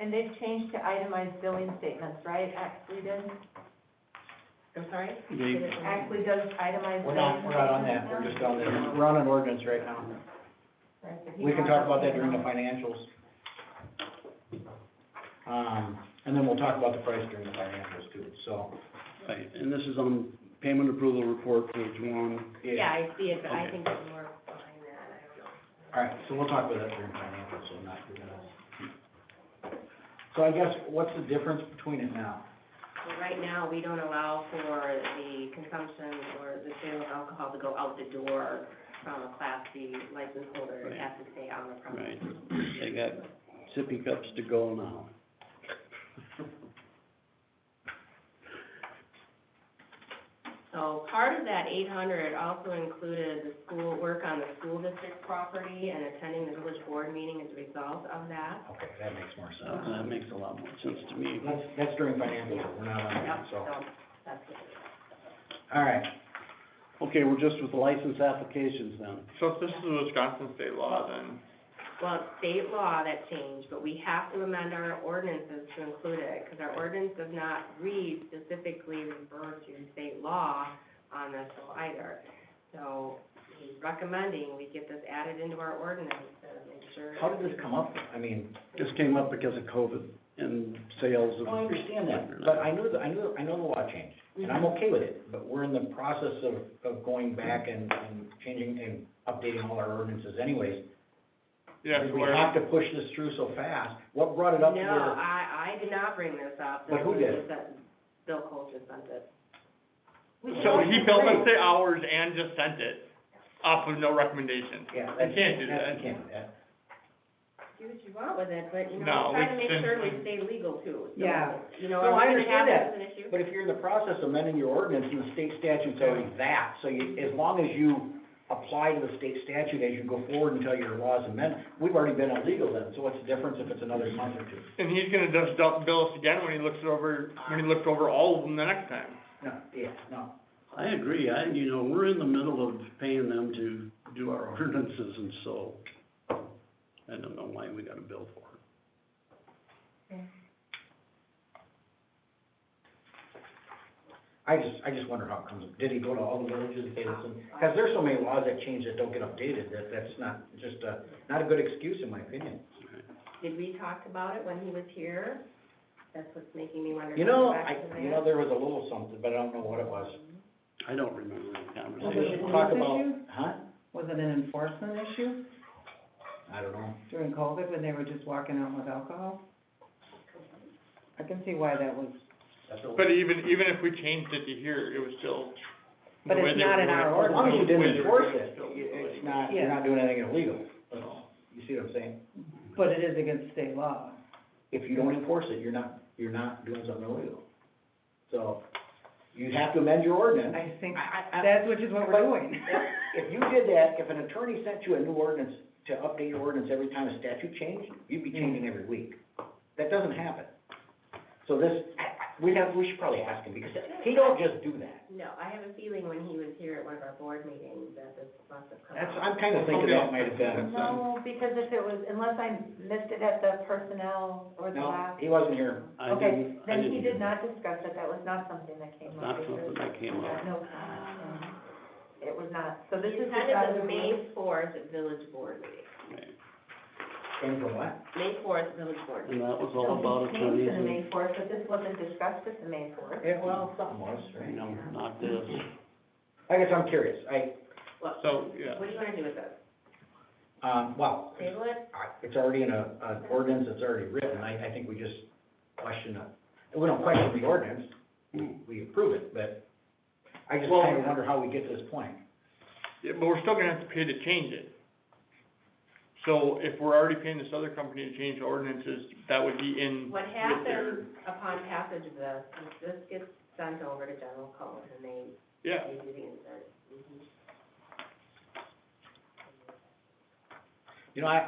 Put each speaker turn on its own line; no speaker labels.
And they've changed to itemized billing statements, right? Actually does,
I'm sorry?
They-
actually does itemized.
We're not, we're not on that, we're just on the, we're on an ordinance right now. We can talk about that during the financials. Um, and then we'll talk about the price during the financials too, so,
Right, and this is on payment approval report, page one.
Yeah,
yeah.
I see it, but I
Okay.
think it's more behind that, I don't know.
All right, so we'll talk about that during financials, so not, we're gonna. So I guess, what's the difference between it now?
Well, right now, we don't allow for the consumption or the sale of alcohol to go out the door from a Class B license holder. It
Right.
has to stay on the
Right,
premises.
they got sippy cups to go now.
So part of that eight hundred also included the school, work on the school district property and attending the village board meeting as a result of that.
Okay, that makes more
So
sense.
that makes a lot more sense to me.
That's, that's during financials, we're not on
Yep,
that, so,
so that's what it is.
all right.
Okay, we're just with license applications then.
So if this is Wisconsin state law, then
Well, it's state law that changed, but we have to amend our ordinances to include it, because our ordinance does not read specifically refer to state law on this either. So he's recommending we get this added into our ordinance to make sure.
How did this come up? I mean,
This came up because of COVID and sales
Oh,
of.
I don't understand that, but I knew, the- I knew, I know the law changed,
Mm-hmm.
and I'm okay with it, but we're in the process of, of going back and, and changing and updating all our ordinances anyways.
yeah,
Did
so
We
where-
have to push this through so fast. What brought it up to
Mm-hmm. No,
where,
I, I did not bring this up.
But who did?
This was that Bill Cole just sent it.
so he built us the hours and just sent it off of no recommendation.
yeah,
You
that's.
can't do
that's-
that.
You can't do that.
Do what you want with it, but, you know,
No,
try to
it's
make
been-
sure we stay legal too. So,
Yeah.
You know,
No, I
if we have
understand that,
this as an issue.
But if you're in the process of amending your ordinance and the state statute's already that, so you, as long as you apply to the state statute as you go forward until your law is amended, we've already been illegal then, so what's the difference if it's another month or two?
And he's gonna just dump bill us again when he looks it over, when he looks over all of them the next time.
No, yeah, no.
I agree, I, you know, we're in the middle of paying them to do our ordinances, and so I don't know why we got a bill for it.
I just, I just wonder how it comes, did he go to all the villages and say, listen, because there's so many laws that change that don't get updated, that, that's not, just a, not a good excuse in my opinion.
Did we talk about it when he was here? That's what's making me wonder.
You know,
if
I,
it's back
you know, there was a little something, but I don't know what it was.
I don't remember the
We should
conversation.
talk about- Huh?
Was it an enforcement issue
I don't know.
during COVID when they were just walking out with alcohol? I can see why that was,
That's a-
But even, even if we changed it to here, it was still.
But
the way
it's
they
not
were
in
doing it,
our
the
As long as you
way
didn't
they were
enforce
doing
it,
still
it's
illegal.
not, you're not doing anything illegal, at all. you see what I'm saying?
but it is against state law.
If you don't enforce it, you're not, you're not doing something illegal. So, you have to amend your ordinance.
I think
I- I- I-
that's which is what we're doing.
If you did that, if an attorney sent you a new ordinance to update your ordinance every time a statute changed, you'd be changing every week. That doesn't happen. So this, we have, we should probably ask him, because he don't just do that.
No, I have a feeling when he was here at one of our board meetings that this must have come
That's,
up.
I'm kinda thinking that might have been,
No, because if it was, unless I missed it at the personnel or the
no,
last.
he wasn't here.
I
Okay,
didn't, I
then
didn't.
he did not discuss it, that was not something that came up.
Not
because-
something that came up.
No, um, it was not, so this is.
This is kind of
just-
the May fourth village board meeting,
Came from what?
May fourth village board.
And
meeting.
that was
So
all about
we changed
attorneys
to the May
and,
fourth, but this wasn't discussed at the May fourth.
Yeah, well, something was,
you
right?
know, not this.
I guess I'm curious, I,
Well,
So, yeah.
what do you wanna do with this?
um, well,
Table it?
I- it's already in a, an ordinance that's already written, I, I think we just question it. We don't question the ordinance, we approve it, but I just
Well-
kinda wonder how we get to this point.
Yeah, but we're still gonna have to pay to change it. So if we're already paying this other company to change the ordinances, that would be in
What
with their,
happens upon passage of this, is this gets sent over to general code and they,
yeah.
they do the Mm-hmm. insert. Mhm.
You know, I,